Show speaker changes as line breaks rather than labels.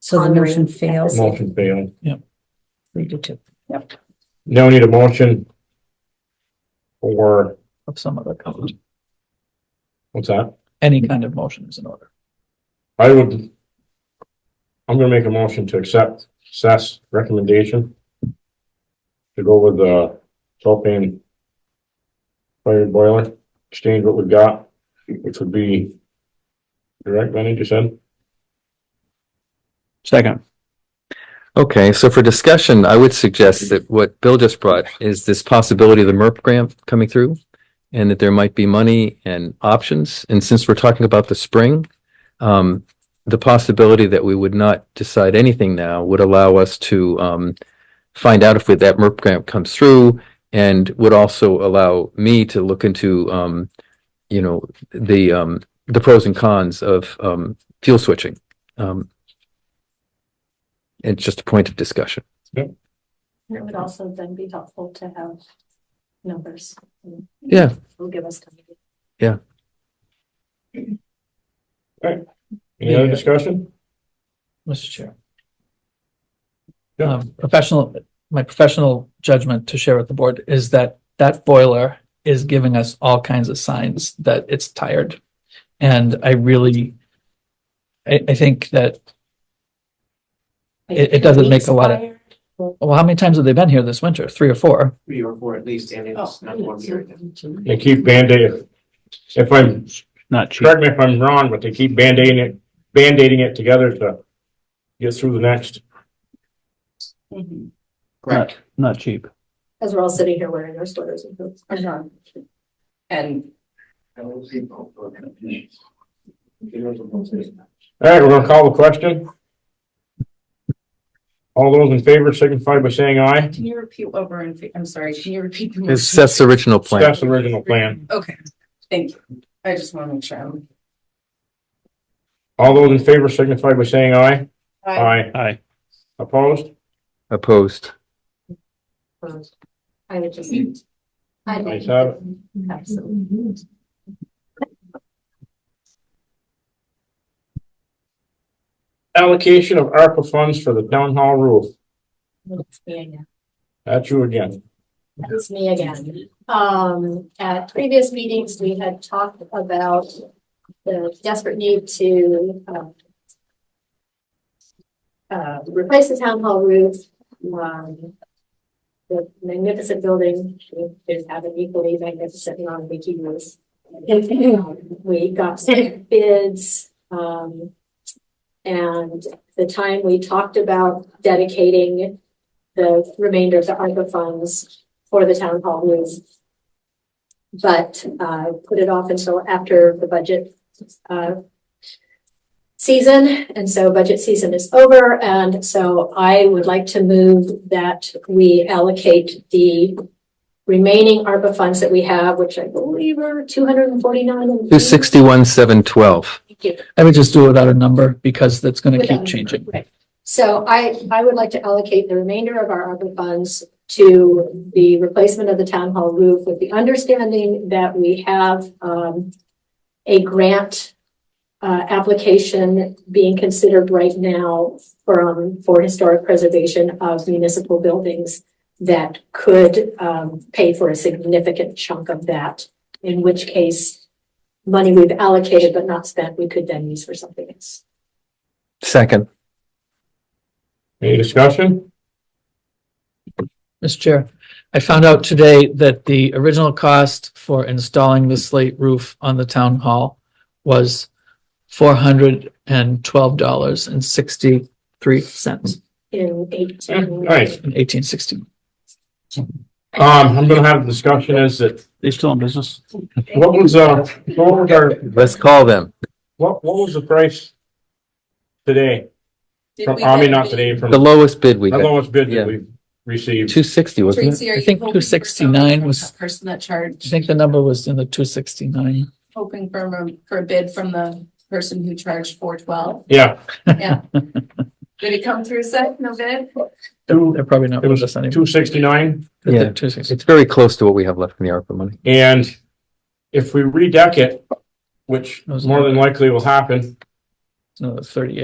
So the
Pondering
motion
at the
fails.
same-
Motion failed.
We do too.
Now we need a motion. For,
of some other kind.
what's that?
Any kind of motion is in order.
I would. I'm gonna make a motion to accept Seth's recommendation. To go with the propane. Fire boiler, exchange what we've got, which would be. Correct, Lenny, you said?
Second.
Okay, so for discussion, I would suggest that what Bill just brought is this possibility of the MERP grant coming through and that there might be money and options. And since we're talking about the spring, um, the possibility that we would not decide anything now would allow us to, um, find out if that MERP grant comes through and would also allow me to look into, um, you know, the, um, the pros and cons of, um, fuel switching. Um, it's just a point of discussion.
And It would also then be helpful to have numbers.
Yeah.
Will give us. time.
Any other
Yeah.
discussion?
Mr. Chair.
Yeah.
Um, professional, my professional judgment to share with the board is that that boiler is giving us all kinds of signs that it's tired. And I really, I, I think that, It- it doesn't make a lot of- well, how many times have they been here this winter? Three or four?
three or four at least, and
Oh,
it's not one period.
They keep Band-Aid. If I'm,
Not cheap.
correct me if I'm wrong, but they keep Band-Aiding it, Band-Aiding it together to. Get through the next.
Mm-hmm.
Mhm.
Not, not cheap.
As we're all sitting here wearing our sweaters and boots. And
All right, we're gonna call the question. All those in favor signify by saying aye.
Can you repeat what we're in, fa- I'm sorry, can you repeat? the
It's
motion?
Seth's original plan.
That's the original plan.
Okay, thank you. I just want to make sure I'm.
All those in favor signify by saying aye. Aye.
Aye.
Opposed?
Opposed.
I would just.
Mm.
I
Nice have it.
Absolutely.
Allocation of ARPA funds for the town hall roof.
That's me again.
That's you again.
It's me again. Um, at previous meetings, we had talked about the desperate need to, um, uh, replace the town hall roof, um, the magnificent building, we did have an equally magnificent non-leaky roof. We got some bids, um, and the time we talked about dedicating the remainder of the ARPA funds for the town hall roof. But uh put it off until after the budget uh season, and so budget season is over, and so I would like to move that we allocate the remaining ARPA funds that we have, which I believe are two hundred and forty-nine.
Two sixty-one, seven twelve.
Thank you.
I would just do it without a number because that's going to keep
Without-
changing.
Right. So I, I would like to allocate the remainder of our ARPA funds to the replacement of the town hall roof with the understanding that we have, um, a grant, uh, application being considered right now from, for historic preservation of municipal buildings that could, um, pay for a significant chunk of that, in which case money we've allocated but not spent, we could then use for something else.
Second.
Any discussion?
Mr. Chair, I found out today that the original cost for installing the slate roof on the town hall was four hundred and twelve dollars and sixty-three cents
in eighteen.
Yeah, nice.
in eighteen sixty.
Um, I'm gonna have a discussion as that,
They still in business?
what was, uh, what was our,
Let's call them.
what, what was the price? Today,
Did
from,
we
I mean,
get
not
the-
today, from
The
the
lowest bid we got,
lowest bid
Yeah.
that we've received.
two sixty, wasn't it?
Tracy, are
I
you
think
hoping for
269
something from
was-
that Person that
I
charged,
think the number was in the two sixty-nine.
hoping for, a- for a bid from the person who charged four twelve?
Yeah,
Yeah. Did it come through, Seth? No bid?
two,
They're probably not
It was
with us anymore.
two sixty-nine.
Yeah.
Two sixty.
It's very close to what we have left in the ARPA money.
And if we redeck it, which more than likely will happen,
No, thirty-eight.